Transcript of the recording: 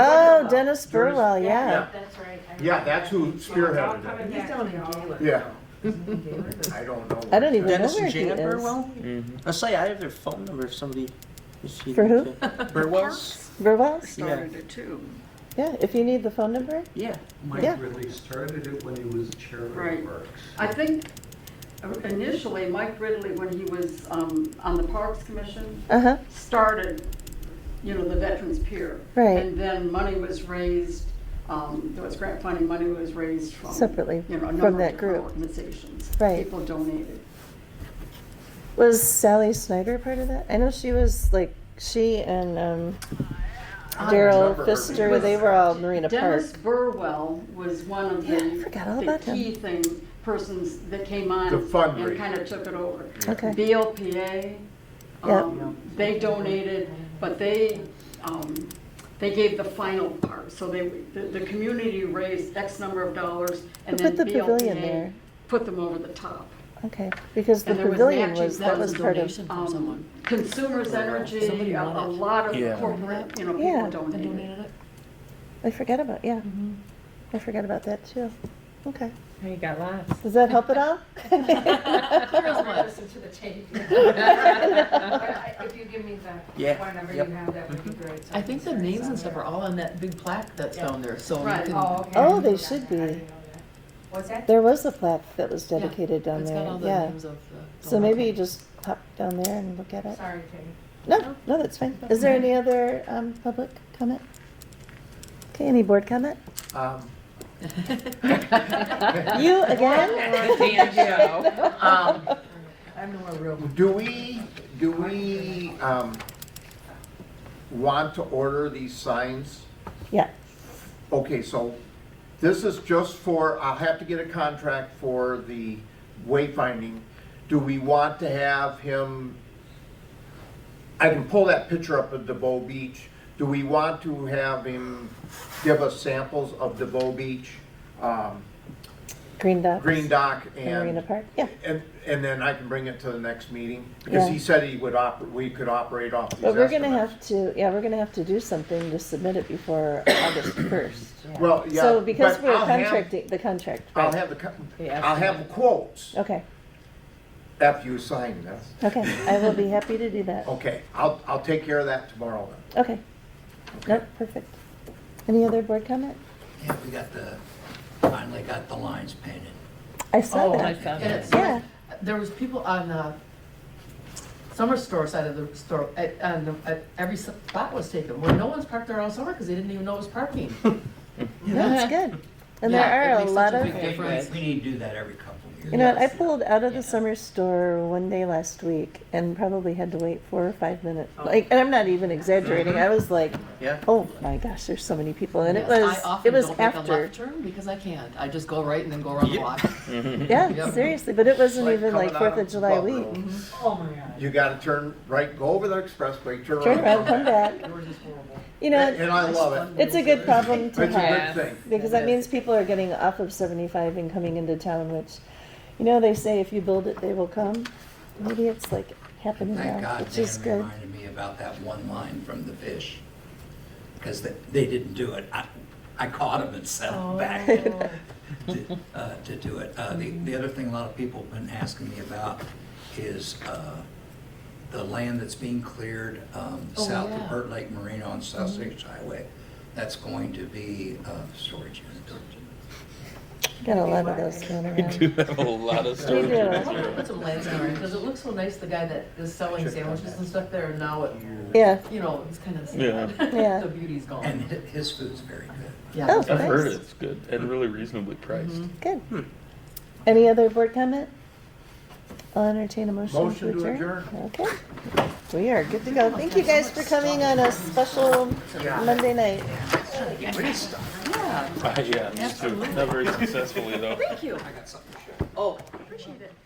Oh, Dennis Burwell, yeah. That's right. I Yeah, remember that's that. who I'll spearheaded come it. and He's get down you in all. Gaylord. Yeah, Gaylord. I don't know. I don't even Dennis know where and he Janet is. Burwell? Let's say I have their phone number if somebody. is she- For who? Burwell's? Burwell's? started it too. Yeah, if you need the phone number. Yeah. Yeah. Mike really started it when he was chairman Right. of Parks. I think initially Mike Ridley, when he was um, on the Parks Commission, Uh huh. started, you know, the Veterans Pier. Right. And then money was raised, um, there was grant funding, money was raised from. Separately, you know, a from number of that different group. Organizations. Right. People donated. Was Sally Snyder part of that? I know she was like she and um, Daryl remember her Pfister. being They there. were all Marina Park. Dennis Burwell was one of the. Yeah, I forgot all the about him. Key thing, persons that came on. The fundraiser. And kind of took it over. Okay. BLPA, Yep. um, they donated, but they, um, they gave the final part. So they, the, the community raised X number of dollars and Who put then the pavilion BLPA there? put them over the top. Okay, because the And there was pavilion matches, was that was a part of. donation. from Um, someone. Consumers Energy, Somebody a a wanted. lot Yeah. of corporate, you know, Yeah. people I donated. donated it. I forget about yeah. I forgot about that too. Okay, You got lots. does that help at all? I'll Listen to the tape. I- I- If you give me the Yeah, phone number you yep. have, that would be great. so I think the can search names and on stuff there. are all on that big plaque that's Yeah. down there, so you Right. can. Oh, okay. Oh, they Yeah, should I didn't be. know that. What's that? There was a plaque that was yeah, dedicated down it's got all there. the Yeah. names of the- So maybe you just hop down there and look at it. Sorry, Jenny. No, no, that's fine. Is there any other um, public comment? Okay, any board comment? Um, You again? Um, I'm nowhere real. Do we, do we, um, want to order these signs? Yeah, Okay, so this is just for, I'll have to get a contract for the wayfinding. Do we want to have him, I can pull that picture up of DeVoe Beach. Do we want to have him give us samples of DeVoe Beach, um, Green Dots. Green Dock and and? Marina Park, yeah. And, and then I can bring it to the next meeting, because he Yeah. said he would oper, we could operate off these But we're gonna estimates. have to, yeah, we're gonna have to do something to submit it before August first. Well, yeah. So because but we're I'll have- contracting, the contract, I'll right? have the, co- The I'll have quotes Okay, after you sign this. okay, I will be happy to do that. Okay, I'll, I'll take care of that tomorrow then. Okay. Nope, perfect. Any other board comment? Yeah, we got the, finally got the lines painted. I saw Oh, that. and it's- Yeah. There was people on the summer store side of the store, at, on the, at every spot was taken, where no one's parked there all summer, because they didn't even know it was parking. That's good. And Yeah, it there are a makes lot such a of, big difference. We need to do that every couple of years. you know, what, I Yes. pulled out of the Yes. summer store one day last week and probably had to wait four or five minutes. Like, and I'm not even exaggerating. I was like, Yeah. oh my gosh, there's so many people. And it Yes, was, I often it was don't make a after. left turn because I can't. I just go right and then go around the block. Yeah, Yep. seriously, but it wasn't Like even like coming out Fourth of July Buffalo. week. Mm-hmm. Oh my god. You gotta turn right, go over the expressway, turn Turn around. around, come back. Yours is horrible. You And know, and I love it. it's a good problem It's to a have. good thing. Because that means people are getting off of seventy-five and coming into town, which, you know, they say if you build it, they will come. Maybe it's like happening now, Thank God which is Dan good. reminded me about that one line from the fish. Because they, they didn't do it. I, I caught him and sent him back to, uh, to do it. Uh, the, the other thing a lot of people have been asking me about is, uh, the land that's being cleared, um, Oh, south yeah. Mm-hmm. of Burt Lake Marina on South Sixth Highway. That's going to be, uh, storage units. Got a lot of those going around. do have a lot of We do. I want to put some lights on it because it looks so nice. The guy that is selling sandwiches and stuff there, and now it, Yeah, you know, it's kind of Yeah. sad. Yeah. the beauty's gone. And hi- his food's very good. Yeah. Oh. I've heard Nice. it's good and really reasonably priced. good. Any other board comment? I'll entertain a motion to Motion to adjourn. Okay, we are good to go. Thank you guys for coming on a special Monday night. Yeah. yeah, me too. Not very successfully though. Thank you. I got something to show. Oh, appreciate it.